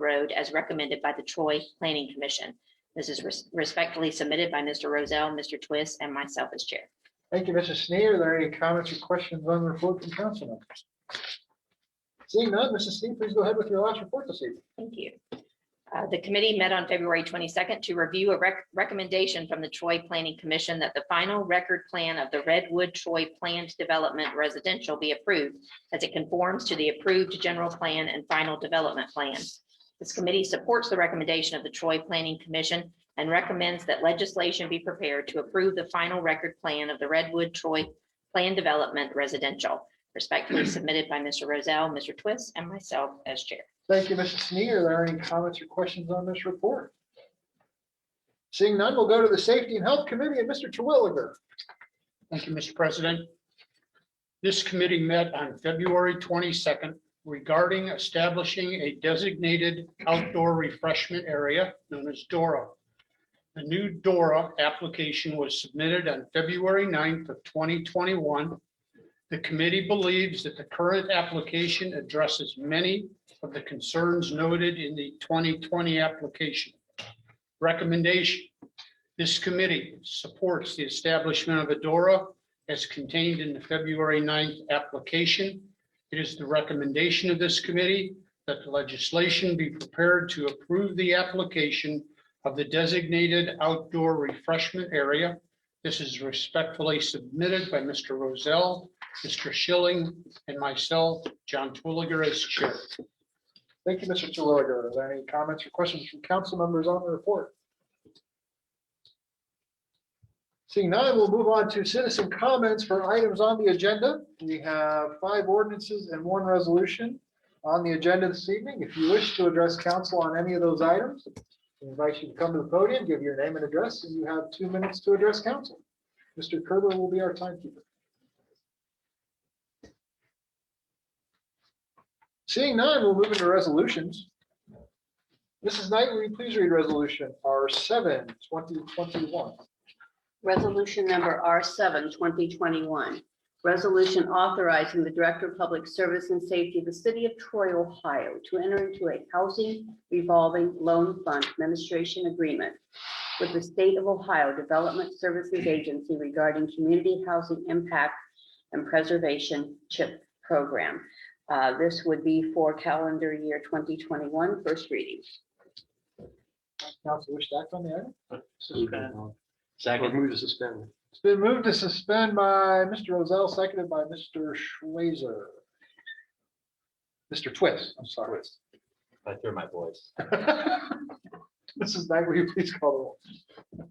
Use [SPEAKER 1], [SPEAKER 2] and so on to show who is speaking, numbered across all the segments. [SPEAKER 1] Road as recommended by the Troy Planning Commission. This is res- respectfully submitted by Mr. Rozell, Mr. Twist, and myself as chair.
[SPEAKER 2] Thank you, Mrs. Sneer. Are there any comments or questions on the report from council members? Seeing none, Mrs. Sneer, please go ahead with your last report this evening.
[SPEAKER 1] Thank you. Uh, The committee met on February 22nd to review a rec- recommendation from the Troy Planning Commission that the final record plan of the Redwood Troy Planned Development Residential be approved as it conforms to the approved general plan and final development plan. This committee supports the recommendation of the Troy Planning Commission and recommends that legislation be prepared to approve the final record plan of the Redwood Troy Planned Development Residential, respectfully submitted by Mr. Rozell, Mr. Twist, and myself as chair.
[SPEAKER 2] Thank you, Mrs. Sneer. Are there any comments or questions on this report? Seeing none, we'll go to the Safety and Health Committee and Mr. Terwilliger.
[SPEAKER 3] Thank you, Mr. President. This committee met on February 22nd regarding establishing a designated outdoor refreshment area known as DORA. The new DORA application was submitted on February 9th of 2021. The committee believes that the current application addresses many of the concerns noted in the 2020 application. Recommendation, this committee supports the establishment of Adora as contained in the February 9th application. It is the recommendation of this committee that the legislation be prepared to approve the application of the designated outdoor refreshment area. This is respectfully submitted by Mr. Rozell, Mr. Schilling, and myself, John Twilliger as chair.
[SPEAKER 2] Thank you, Mr. Terwilliger. Are there any comments or questions from council members on the report? Seeing none, we'll move on to citizen comments for items on the agenda. We have five ordinances and one resolution on the agenda this evening. If you wish to address council on any of those items, we invite you to come to the podium, give your name and address, and you have two minutes to address council. Mr. Kerber will be our timekeeper. Seeing none, we'll move into resolutions. Mrs. Knight, will you please read resolution R 7 2021?
[SPEAKER 4] Resolution number R 7 2021. Resolution authorizing the Director of Public Service and Safety of the City of Troy, Ohio to enter into a housing revolving loan fund administration agreement with the State of Ohio Development Services Agency regarding community housing impact and preservation CHIP program. Uh, this would be for calendar year 2021. First reading.
[SPEAKER 2] Council wish to act on the item?
[SPEAKER 5] Suspend. Second. Move to suspend.
[SPEAKER 2] It's been moved to suspend by Mr. Rozell, seconded by Mr. Schweizer. Mr. Twist, I'm sorry.
[SPEAKER 5] I threw my voice.
[SPEAKER 2] Mrs. Knight, will you please call the roll?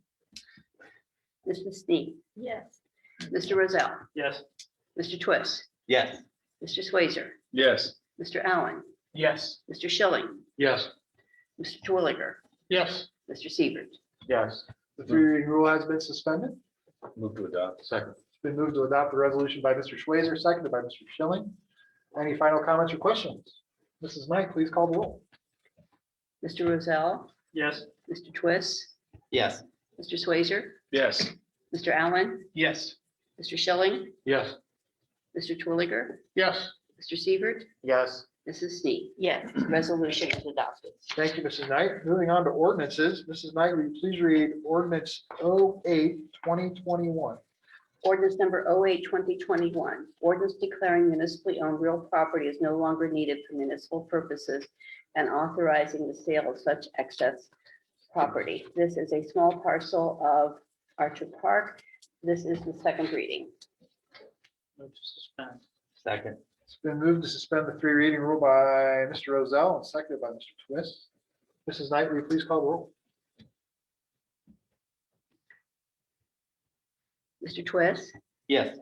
[SPEAKER 4] Mrs. Sneak,
[SPEAKER 1] Yes.
[SPEAKER 4] Mr. Rozell,
[SPEAKER 5] Yes.
[SPEAKER 4] Mr. Twist,
[SPEAKER 5] Yes.
[SPEAKER 4] Mr. Swazer,
[SPEAKER 5] Yes.
[SPEAKER 4] Mr. Allen,
[SPEAKER 5] Yes.
[SPEAKER 4] Mr. Schilling,
[SPEAKER 5] Yes.
[SPEAKER 4] Mr. Twilliger,
[SPEAKER 3] Yes.
[SPEAKER 4] Mr. Siebert,
[SPEAKER 5] Yes.
[SPEAKER 2] The three reading rule has been suspended.
[SPEAKER 5] Move to adopt. Second.
[SPEAKER 2] It's been moved to adopt the resolution by Mr. Schweizer, seconded by Mr. Schilling. Any final comments or questions? Mrs. Knight, please call the roll.
[SPEAKER 4] Mr. Rozell,
[SPEAKER 3] Yes.
[SPEAKER 4] Mr. Twist,
[SPEAKER 5] Yes.
[SPEAKER 4] Mr. Swazer,
[SPEAKER 5] Yes.
[SPEAKER 4] Mr. Allen,
[SPEAKER 3] Yes.
[SPEAKER 4] Mr. Schilling,
[SPEAKER 5] Yes.
[SPEAKER 4] Mr. Twilliger,
[SPEAKER 3] Yes.
[SPEAKER 4] Mr. Siebert,
[SPEAKER 5] Yes.
[SPEAKER 4] Mrs. Sneak.
[SPEAKER 1] Yes,
[SPEAKER 4] Resolution is adopted.
[SPEAKER 2] Thank you, Mrs. Knight. Moving on to ordinances. Mrs. Knight, will you please read ordinance 08 2021?
[SPEAKER 4] Ordinance number 08-2021. ordinance declaring municipally owned real property is no longer needed for municipal purposes and authorizing the sale of such excess property. This is a small parcel of Archer Park. This is the second reading.
[SPEAKER 5] Second.
[SPEAKER 2] It's been moved to suspend the three reading rule by Mr. Rozell and seconded by Mr. Twist. Mrs. Knight, will you please call the roll?
[SPEAKER 4] Mr. Twist,
[SPEAKER 5] Yes.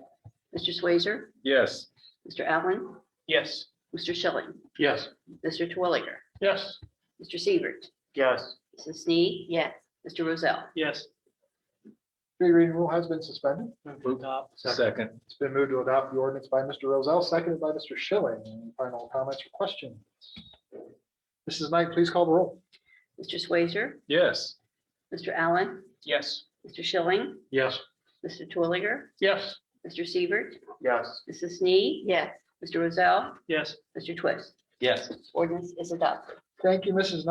[SPEAKER 4] Mr. Swazer,
[SPEAKER 5] Yes.
[SPEAKER 4] Mr. Allen,
[SPEAKER 3] Yes.
[SPEAKER 4] Mr. Schilling,
[SPEAKER 5] Yes.
[SPEAKER 4] Mr. Twilliger,
[SPEAKER 3] Yes.
[SPEAKER 4] Mr. Siebert,
[SPEAKER 5] Yes.
[SPEAKER 4] Mrs. Snead,
[SPEAKER 1] yes.
[SPEAKER 4] Mr. Rozell,
[SPEAKER 3] Yes.
[SPEAKER 2] Three reading rule has been suspended.
[SPEAKER 5] Second.
[SPEAKER 2] It's been moved to adopt the ordinance by Mr. Rozell, seconded by Mr. Schilling. Any Final comments or questions? Mrs. Knight, please call the roll.
[SPEAKER 4] Mr. Swazer,
[SPEAKER 5] Yes.
[SPEAKER 4] Mr. Allen,
[SPEAKER 3] Yes.
[SPEAKER 4] Mr. Schilling,
[SPEAKER 5] Yes.
[SPEAKER 4] Mr. Twilliger,
[SPEAKER 3] Yes.
[SPEAKER 4] Mr. Siebert,
[SPEAKER 5] Yes.
[SPEAKER 4] Mrs. Snead,
[SPEAKER 1] Yes.
[SPEAKER 4] Mr. Rozell,
[SPEAKER 3] Yes.
[SPEAKER 4] Mr. Twist.
[SPEAKER 5] Yes.
[SPEAKER 4] Ordinance is adopted.
[SPEAKER 2] Thank you, Mrs.